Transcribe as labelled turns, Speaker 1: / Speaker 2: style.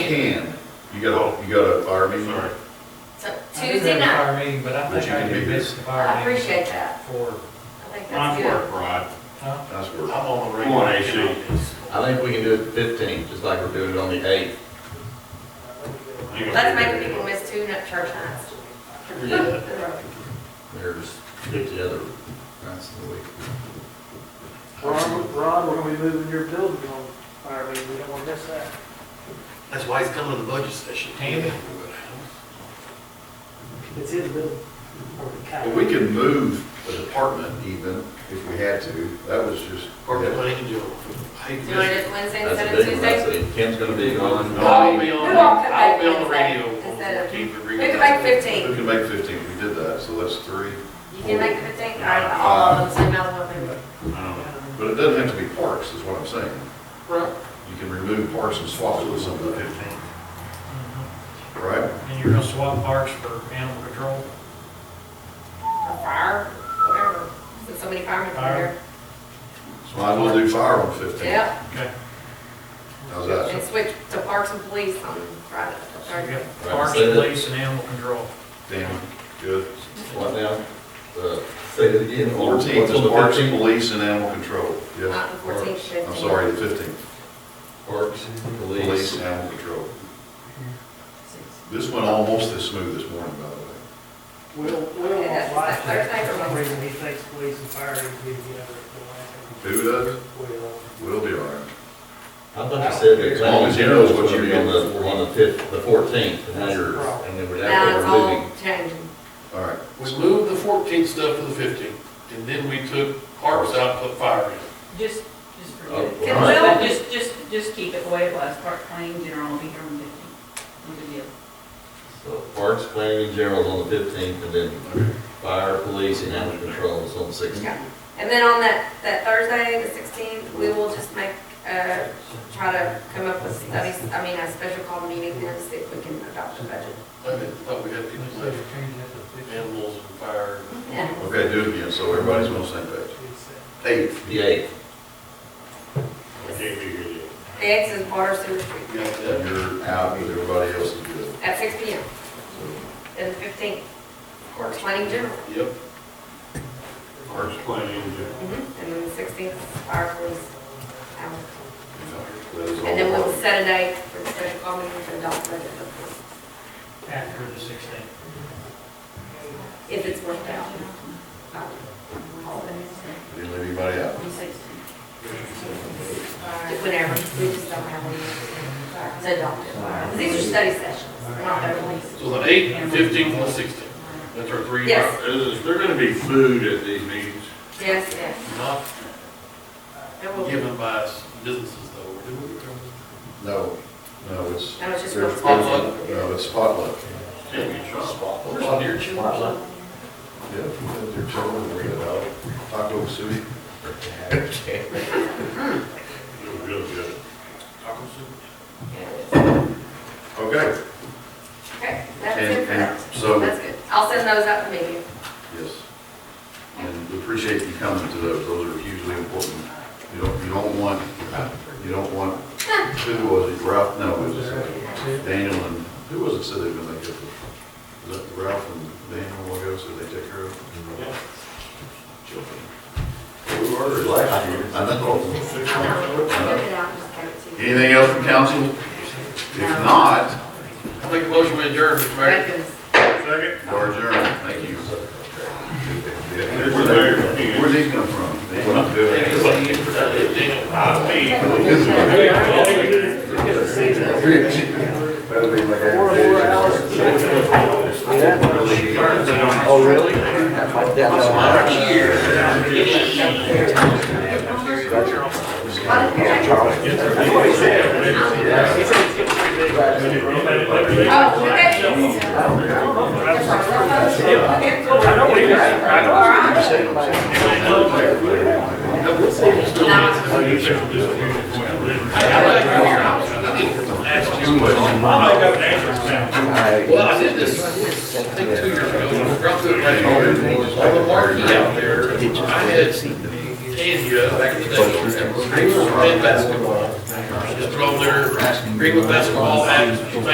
Speaker 1: can. You got, a you got a fire meeting?
Speaker 2: Sorry.
Speaker 3: So
Speaker 4: I didn't have
Speaker 3: Tuesday
Speaker 4: a
Speaker 3: night,
Speaker 4: Fire meeting, but I
Speaker 1: But you
Speaker 4: think I
Speaker 1: can be
Speaker 4: did
Speaker 1: here.
Speaker 4: miss the fire meeting.
Speaker 3: I appreciate that, I
Speaker 4: For,
Speaker 3: think that's
Speaker 2: Nice
Speaker 3: good.
Speaker 2: work, Rod.
Speaker 4: huh?
Speaker 1: Nice
Speaker 2: I'm on
Speaker 1: work.
Speaker 2: the
Speaker 5: Come on,
Speaker 2: regulation
Speaker 5: AC.
Speaker 2: on this.
Speaker 6: I think we can do it fifteen, just like we're doing it on the eighth.
Speaker 2: You gonna
Speaker 3: Let's
Speaker 2: be
Speaker 3: make
Speaker 2: there.
Speaker 3: people miss two nut church nights.
Speaker 6: Yeah. There's fifty other nights in the week.
Speaker 7: Ron, Ron, we're gonna be moving your building on fire meeting, we don't wanna miss that.
Speaker 5: That's why he's coming to the budget session.
Speaker 4: Damn it.
Speaker 7: It's his building. or the
Speaker 1: Well,
Speaker 7: county.
Speaker 1: we can move a department even if we had to. That was just.
Speaker 5: Department of Angel. Hey,
Speaker 3: Do you want to do it Wednesday
Speaker 6: That's
Speaker 3: instead
Speaker 6: a
Speaker 3: of
Speaker 6: big one, I
Speaker 3: Tuesday?
Speaker 6: see. Kim's gonna be
Speaker 5: Oh,
Speaker 2: No,
Speaker 6: gone.
Speaker 2: I'll be on,
Speaker 3: Who all could
Speaker 2: I'll
Speaker 3: make
Speaker 2: be on the
Speaker 3: Wednesday
Speaker 2: radio on
Speaker 3: instead of-
Speaker 2: fourteenth.
Speaker 3: We can make fifteen,
Speaker 1: Who can make fifteen? We did that, so that's three.
Speaker 3: you can make fifteen, all
Speaker 6: Uh,
Speaker 3: right, all of them, so now the one move.
Speaker 1: But it doesn't have to be parks, is what I'm saying.
Speaker 5: Right.
Speaker 1: You can remove parks and swap it with something,
Speaker 4: Mhm.
Speaker 1: right?
Speaker 4: And you're gonna swap parks for animal control?
Speaker 3: or fire, whatever, since so many firemen are here.
Speaker 1: So I will do fire on fifteen.
Speaker 3: Yep,
Speaker 4: Okay.
Speaker 1: How's that?
Speaker 3: and switch to parks and police on Friday,
Speaker 4: So you
Speaker 3: Thursday.
Speaker 4: got parks, police, and animal control.
Speaker 1: Danny, good.
Speaker 6: What now? Uh, Say it again. What's on
Speaker 1: Fourteenth is
Speaker 6: the
Speaker 1: parks,
Speaker 6: 15?
Speaker 1: police, and animal control. Yes,
Speaker 3: Not the fourteenth, fifteenth.
Speaker 1: I'm sorry, the fifteenth,
Speaker 6: Parks,
Speaker 1: police,
Speaker 6: police.
Speaker 1: and animal control. This went almost as smooth this morning, by the way.
Speaker 7: Will, Will
Speaker 3: Yeah,
Speaker 7: won't like
Speaker 3: that's
Speaker 7: that,
Speaker 3: Thursday.
Speaker 7: for some reason, he thinks police and fire need to be together. at the last
Speaker 1: Who does?
Speaker 7: minute. Will.
Speaker 1: We'll be all right.
Speaker 6: I thought you said that
Speaker 1: As long
Speaker 6: planning
Speaker 1: as he
Speaker 6: and
Speaker 1: knows
Speaker 6: general was
Speaker 1: what
Speaker 6: gonna be
Speaker 1: you're
Speaker 6: on the, on the fifth, the fourteenth, and
Speaker 7: That's
Speaker 6: then
Speaker 7: the
Speaker 6: you're,
Speaker 7: problem.
Speaker 6: and then we're
Speaker 3: Now
Speaker 6: after
Speaker 3: it's
Speaker 6: we're moving.
Speaker 3: all changing.
Speaker 1: All right.
Speaker 5: We moved the fourteenth stuff to the fifteenth, and then we took parks out, put fire in.
Speaker 8: Just, just
Speaker 6: Oh,
Speaker 8: forget
Speaker 6: all right.
Speaker 8: it. Just, just, just keep it the way it was, park claim, general will be here on the fifteenth. No big deal.
Speaker 6: So Parks, planning and general's on the fifteenth, and then fire, police, and animal control is on the sixteenth.
Speaker 3: Yeah. And then on that, that Thursday, the sixteenth, we will just make, uh, try to come up with studies, I mean, a special call meeting then to see if we can adopt the budget.
Speaker 5: I mean, thought we had people
Speaker 4: So
Speaker 5: like
Speaker 4: you're changing it to fifteen.
Speaker 5: animals and fire.
Speaker 3: Yeah.
Speaker 1: Okay, do it again, so everybody's on the same page.
Speaker 7: It's, uh,
Speaker 1: Eight.
Speaker 6: The eighth.
Speaker 2: I can't be here yet.
Speaker 3: The X is water sewer street
Speaker 5: You got that?
Speaker 1: You're out, but everybody else is good.
Speaker 3: at six P M. And the fifteenth, or twenty general.
Speaker 5: Yep.
Speaker 2: Parks planning, yeah.
Speaker 3: Mm-hmm. And then the sixteenth, fire police. hour.
Speaker 1: That is all.
Speaker 3: And then we'll set a date for the special call meeting to adopt the budget, of course,
Speaker 4: After the sixteenth.
Speaker 3: if it's worked out. Um, holidays.
Speaker 1: Didn't leave anybody out.
Speaker 8: On the sixteenth.
Speaker 3: Whenever, we just don't have one. To adopt it. These are study sessions, not their releases.
Speaker 5: So the eighth, fifteenth, and the sixteenth. That's our three.
Speaker 3: Yes.
Speaker 2: Is there gonna be food at these meetings?
Speaker 3: Yes, yes.
Speaker 5: Not
Speaker 3: There will be.
Speaker 5: given by s- businesses though. or
Speaker 1: No, no, it's.
Speaker 3: No, it's just
Speaker 1: there's-
Speaker 3: real-
Speaker 5: Potluck?
Speaker 1: No, it's potluck.
Speaker 5: do we? Can't be trust. There's some deer chips.
Speaker 1: Yeah, they're children, we're out. Taco City.
Speaker 6: Okay.
Speaker 2: You're good, good.
Speaker 5: Taco soup.
Speaker 1: Okay,
Speaker 3: Okay, that's it for
Speaker 1: And-
Speaker 3: that.
Speaker 1: and so-
Speaker 3: That's good. I'll send those out to me.
Speaker 1: yes. And we appreciate you coming to those, those are hugely important. You don't, you don't want, you don't want, uh, who was it, Ralph, no, it was Daniel and, who was it said they were gonna make it? Was that Ralph and Daniel, what else did they take care of?
Speaker 2: Yeah.
Speaker 1: Children. We were relaxed here. I know.
Speaker 3: I'll get it out and just give it to you.
Speaker 1: Anything else from council? If not,
Speaker 5: I make a motion to adjourn, Mr. Mayor.
Speaker 3: Records.
Speaker 2: Second?
Speaker 1: we're adjourned. Thank you.
Speaker 2: We're there.
Speaker 1: Where'd these come from? They don't do it.
Speaker 2: I mean.
Speaker 7: Four, four hours.
Speaker 1: Oh, really?
Speaker 3: Oh, okay.
Speaker 2: I'll make up an answer now.
Speaker 5: Well, I did this, I think two years ago, when I dropped it right here. I was marking out there, I had Tandy up back in the day, and was playing basketball. And just throw their Greenwood basketball at